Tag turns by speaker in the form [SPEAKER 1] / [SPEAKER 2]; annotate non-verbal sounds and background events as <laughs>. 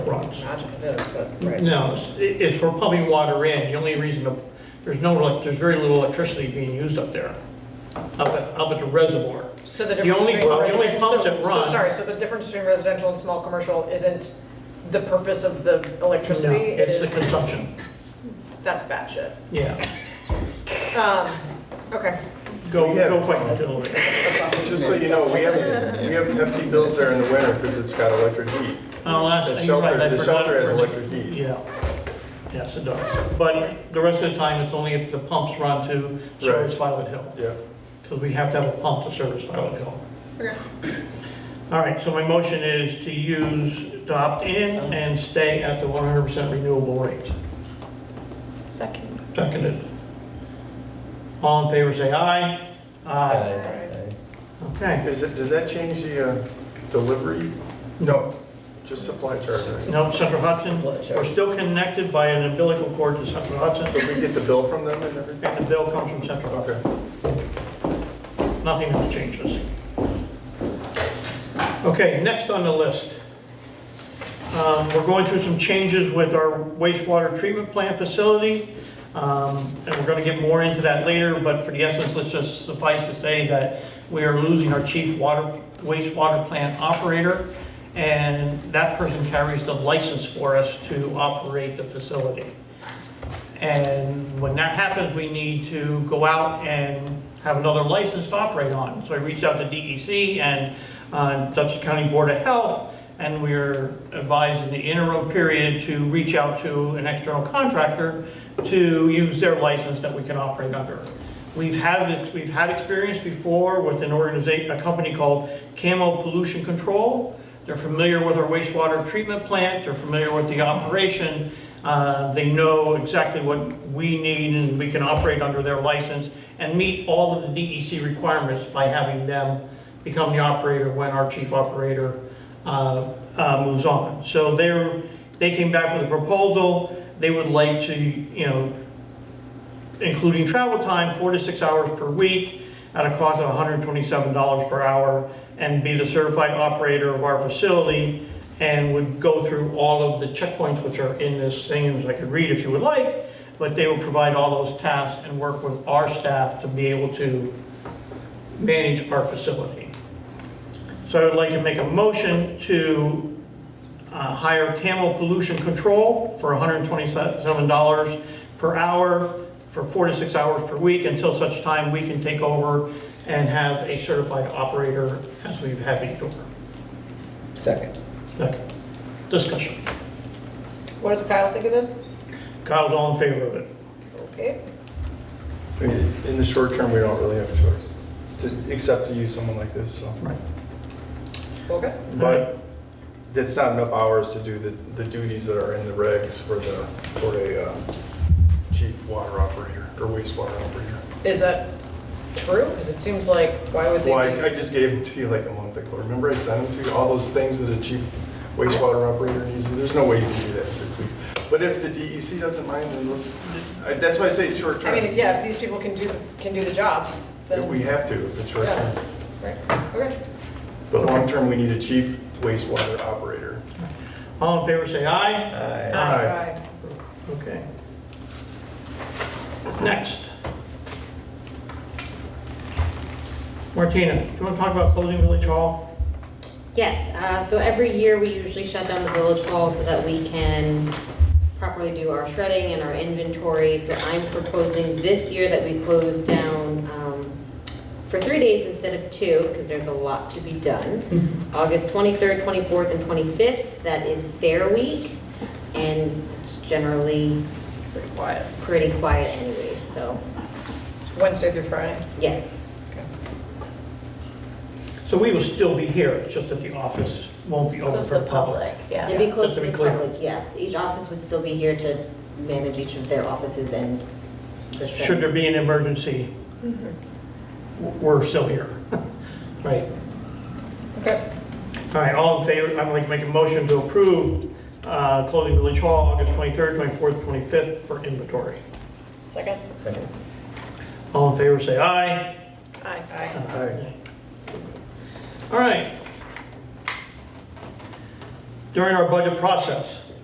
[SPEAKER 1] fronts.
[SPEAKER 2] Imagine it is, but, right.
[SPEAKER 1] No, it's- it's for pumping water in. The only reason, the- there's no, elec- there's very little electricity being used up there, up at, up at the reservoir.
[SPEAKER 2] So the
[SPEAKER 1] The
[SPEAKER 2] difference
[SPEAKER 1] only
[SPEAKER 2] between
[SPEAKER 1] pub- the only
[SPEAKER 2] residential,
[SPEAKER 1] pubs
[SPEAKER 2] so,
[SPEAKER 1] that
[SPEAKER 2] so
[SPEAKER 1] run-
[SPEAKER 2] sorry, so the difference between residential and small commercial isn't the purpose of the electricity? It
[SPEAKER 1] It's the
[SPEAKER 2] is,
[SPEAKER 1] consumption,
[SPEAKER 2] that's batshit.
[SPEAKER 1] yeah.
[SPEAKER 2] Um, okay.
[SPEAKER 1] Go,
[SPEAKER 3] We have-
[SPEAKER 1] go fight until,
[SPEAKER 3] Just so you know, we have, we have hefty bills there in the winter because it's got electric heat.
[SPEAKER 1] oh,
[SPEAKER 3] The
[SPEAKER 1] that's, you're right,
[SPEAKER 3] shelter-
[SPEAKER 1] I
[SPEAKER 3] the
[SPEAKER 1] forgot
[SPEAKER 3] shelter has
[SPEAKER 1] for the-
[SPEAKER 3] electric heat.
[SPEAKER 1] Yeah, yes, it does. But the rest of the time, it's only if the pumps run to service Violet Hill,
[SPEAKER 3] Yeah.
[SPEAKER 1] because we have to have a pump to service Violet Hill.
[SPEAKER 2] Okay.
[SPEAKER 1] All right, so my motion is to use, to opt in and stay at the 100% renewable rate.
[SPEAKER 4] Second.
[SPEAKER 1] Seconded. All in favor, say aye. Aye. Okay.
[SPEAKER 3] Is it, does that change the uh, delivery?
[SPEAKER 1] No.
[SPEAKER 3] Just supply charge, right?
[SPEAKER 1] No, Central Hudson, we're still connected by an umbilical cord to Central
[SPEAKER 3] So
[SPEAKER 1] Hudson.
[SPEAKER 3] we get the bill from them and everything?
[SPEAKER 1] And the bill comes from Central Hudson.
[SPEAKER 3] Okay.
[SPEAKER 1] Nothing else changes. Okay, next on the list. Um, We're going through some changes with our wastewater treatment plant facility, um, and we're going to get more into that later, but for the essence, let's just suffice to say that we are losing our chief water, wastewater plant operator, and that person carries the license for us to operate the facility. And when that happens, we need to go out and have another license to operate on. So I reached out to DEC and uh, Dutchess County Board of Health, and we are advised in the interim period to reach out to an external contractor to use their license that we can operate under. We've had, we've had experience before with an organization, a company called Camo Pollution Control. They're familiar with our wastewater treatment plant, they're familiar with the operation, uh, they know exactly what we need, and we can operate under their license and meet all of the DEC requirements by having them become the operator when our chief operator uh, uh, moves on. So they're, they came back with a proposal, they would like to, you know, including travel time, four to six hours per week at a cost of $127 per hour and be the certified operator of our facility and would go through all of the checkpoints which are in this thing, as I could read if you would like, but they will provide all those tasks and work with our staff to be able to manage our facility. So I would like to make a motion to uh, hire Camel Pollution Control for $127 per hour for four to six hours per week until such time we can take over and have a certified operator as we've had before.
[SPEAKER 5] Second.
[SPEAKER 1] Second. Discussion.
[SPEAKER 2] What does Kyle think of this?
[SPEAKER 1] Kyle's all in favor of it.
[SPEAKER 2] Okay.
[SPEAKER 3] I mean, In the short term, we don't really have a choice to, except to use someone like this, so.
[SPEAKER 1] Right.
[SPEAKER 2] Okay.
[SPEAKER 3] But that's not enough hours to do the, the duties that are in the regs for the, for a uh, chief water operator or wastewater operator.
[SPEAKER 2] Is that true? Because it seems like, why would
[SPEAKER 3] Well, I, I
[SPEAKER 2] they be?
[SPEAKER 3] just gave them to you like a month ago. Remember I sent them to you, all those things that a chief wastewater operator needs? There's no way you can do that, so please. But if the DEC doesn't mind, then let's, I- that's why I say it's short
[SPEAKER 2] I mean,
[SPEAKER 3] term.
[SPEAKER 2] yeah, if these people can do, can do the job, then.
[SPEAKER 3] We have to, if it's short
[SPEAKER 2] Yeah,
[SPEAKER 3] term.
[SPEAKER 2] right, okay.
[SPEAKER 3] But long term, we need a chief wastewater operator.
[SPEAKER 1] All in favor, say aye.
[SPEAKER 3] Aye.
[SPEAKER 1] Okay. Next. Martina, do you want to talk about closing Village Hall?
[SPEAKER 6] Yes, uh, so every year we usually shut down the village hall so that we can properly do our shredding and our inventory. So I'm proposing this year that we close down um, for three days instead of two, because there's a lot to be done. August 23rd, 24th, and 25th, that is Fair Week, and it's generally
[SPEAKER 2] Pretty quiet.
[SPEAKER 6] pretty quiet anyways, so,
[SPEAKER 2] Wednesday through Friday.
[SPEAKER 6] yes.
[SPEAKER 2] Okay.
[SPEAKER 1] So we will still be here, it's just that the office won't be open
[SPEAKER 4] Close
[SPEAKER 1] for
[SPEAKER 4] the
[SPEAKER 1] the public.
[SPEAKER 4] public, yeah.
[SPEAKER 6] It'd be
[SPEAKER 1] just
[SPEAKER 6] close
[SPEAKER 1] to
[SPEAKER 6] to
[SPEAKER 1] be
[SPEAKER 6] the
[SPEAKER 1] clear.
[SPEAKER 6] public, yes. Each office would still be here to manage each of their offices and the shredding.
[SPEAKER 1] Should there be an emergency,
[SPEAKER 4] Mm-hmm.
[SPEAKER 1] w- we're still here, <laughs> right?
[SPEAKER 2] Okay.
[SPEAKER 1] All right, all in favor, I'd like to make a motion to approve uh, closing Village Hall August 23rd, 24th, 25th for inventory.
[SPEAKER 2] Second?
[SPEAKER 5] Second.
[SPEAKER 1] All in favor, say aye.
[SPEAKER 2] Aye. Aye.
[SPEAKER 3] Aye.
[SPEAKER 1] All right. during our budget process.